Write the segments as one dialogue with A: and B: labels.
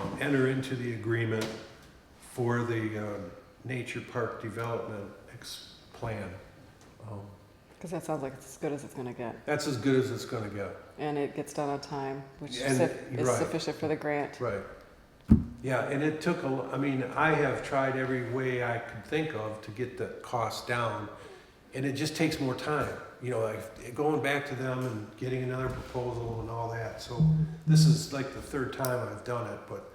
A: um, enter into the agreement for the um, nature park development ex- plan. Um,
B: Because that sounds like it's as good as it's gonna get,
A: That's as good as it's gonna get,
B: and it gets done on time, which
A: And-
B: is suf- is
A: right.
B: sufficient for the grant.
A: right? Yeah, and it took a, l- I mean, I have tried every way I could think of to get the cost down, and it just takes more time. You know, like going back to them and getting another proposal and all that, so this is like the third time I've done it, but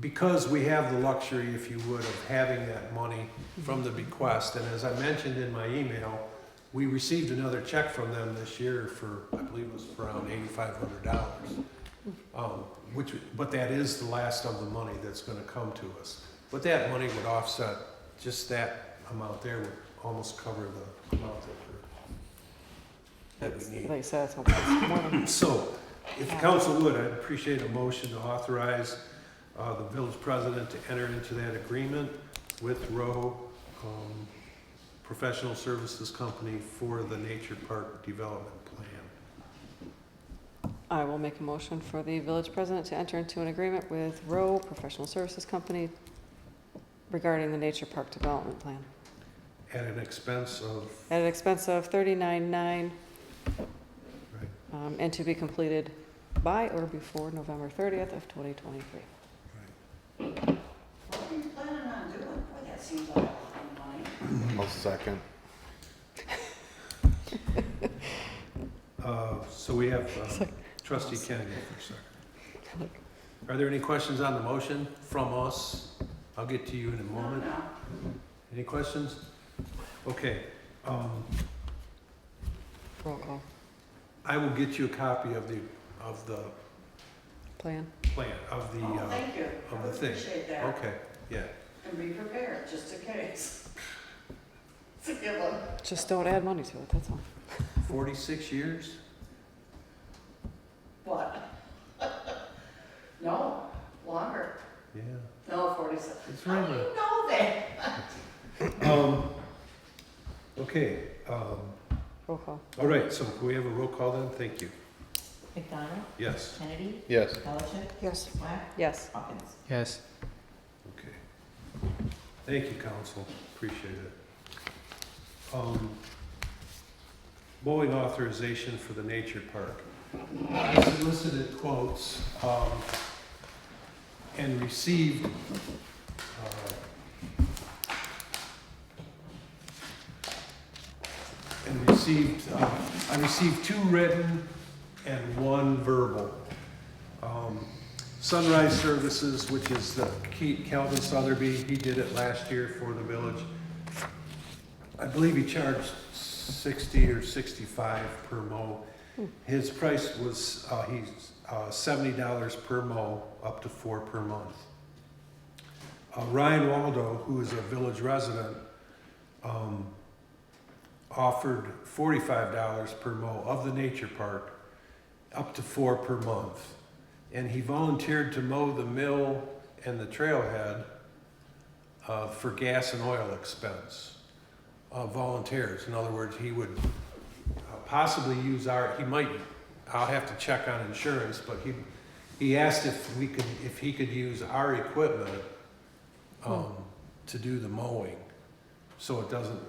A: because we have the luxury, if you would, of having that money from the bequest, and as I mentioned in my email, we received another check from them this year for, I believe it was around eighty-five hundred dollars. Um, which, but that is the last of the money that's gonna come to us. But that money would offset, just that amount there would almost cover the amount that we're, that we need.
B: Like you said, it's hopefully it's more than-
A: So, if the council would, I'd appreciate a motion to authorize uh, the village president to enter into that agreement with Rowe um, Professional Services Company for the Nature Park Development Plan.
B: I will make a motion for the village president to enter into an agreement with Rowe Professional Services Company regarding the nature park development plan
A: At an expense of,
B: at an expense of thirty-nine nine,
A: right,
B: um, and to be completed by or before November thirtieth of twenty twenty-three.
A: right.
C: What are you planning on doing? Boy, that seems like a lot of money.
D: I'll second.
A: Uh, So we have uh, trustee Kennedy for a second. Are there any questions on the motion from us? I'll get to you in a
C: No,
A: moment.
C: no.
A: Any questions? Okay, um,
B: Roll call,
A: I will get you a copy of the, of the
B: plan.
A: plan, of the,
C: Oh,
A: uh,
C: thank you.
A: of
C: I
A: the
C: would
A: thing.
C: appreciate that.
A: okay, yeah.
C: And be prepared, just in case. It's a good one.
B: Just don't add money to it, that's all.
A: Forty-six years?
C: What? No, longer.
A: Yeah.
C: No, forty-seven.
A: It's
C: How do
A: right
C: you know that?
A: there. Um, okay, um,
B: Roll call.
A: all right, so can we have a roll call then? Thank you.
E: McDonald,
A: Yes,
E: Kennedy,
D: Yes.
E: Pellicet,
B: Yes.
E: Swack,
B: Yes.
E: Hawkins.
F: Yes.
A: okay. Thank you, council, appreciate it. Um, mowing authorization for the nature park. I solicited quotes, um, and received, uh, and received, uh, I received two written and one verbal. Um, Sunrise Services, which is the Ke- Calvin Sotherby, he did it last year for the village. I believe he charged sixty or sixty-five per mow. His price was, uh, he's, uh, seventy dollars per mow, up to four per month. Uh, Ryan Waldo, who is a village resident, um, offered forty-five dollars per mow of the nature park, up to four per month. And he volunteered to mow the mill and the trailhead uh, for gas and oil expense. Uh, volunteers, in other words, he would uh, possibly use our. He might. I'll have to check on insurance, but he he asked if we could if he could use our equipment um, to do the mowing, so it doesn't.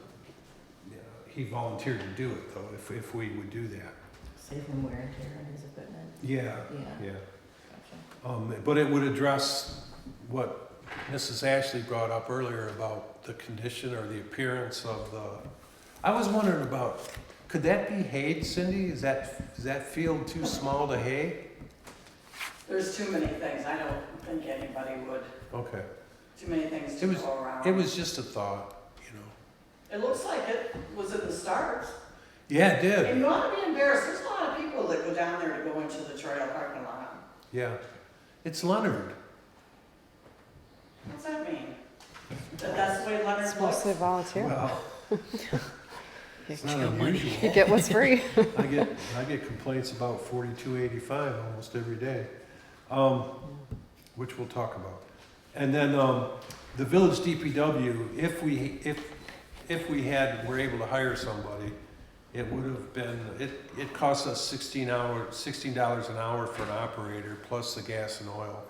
A: yeah, He volunteered to do it though. If if we would do that.
E: Save him wear and tear on his equipment.
A: Yeah,
E: Yeah.
A: yeah.
E: Gotcha.
A: Um, but it would address what Mrs. Ashley brought up earlier about the condition or the appearance of the, I was wondering about, could that be hay, Cindy? Is that, is that field too small to hay?
C: There's too many things. I don't think anybody would.
A: Okay,
C: Too many things
A: It
C: to
A: was-
C: go around.
A: it was just a thought, you know.
C: It looks like it was in the stars.
A: Yeah, it
C: And
A: did,
C: you ought to be embarrassed. There's a lot of people that go down there to go into the trail parking lot.
A: yeah. It's Leonard,
C: What's that mean? That that's the way Leonard
B: It's mostly
C: looks?
B: volunteer.
A: well, it's not unusual.
B: You get what's free.
A: I get, I get complaints about forty-two eighty-five almost every day, um, which we'll talk about. And then, um, the village DPW, if we, if, if we had, were able to hire somebody, it would have been, it, it costs us sixteen hour, sixteen dollars an hour for an operator, plus the gas and oil.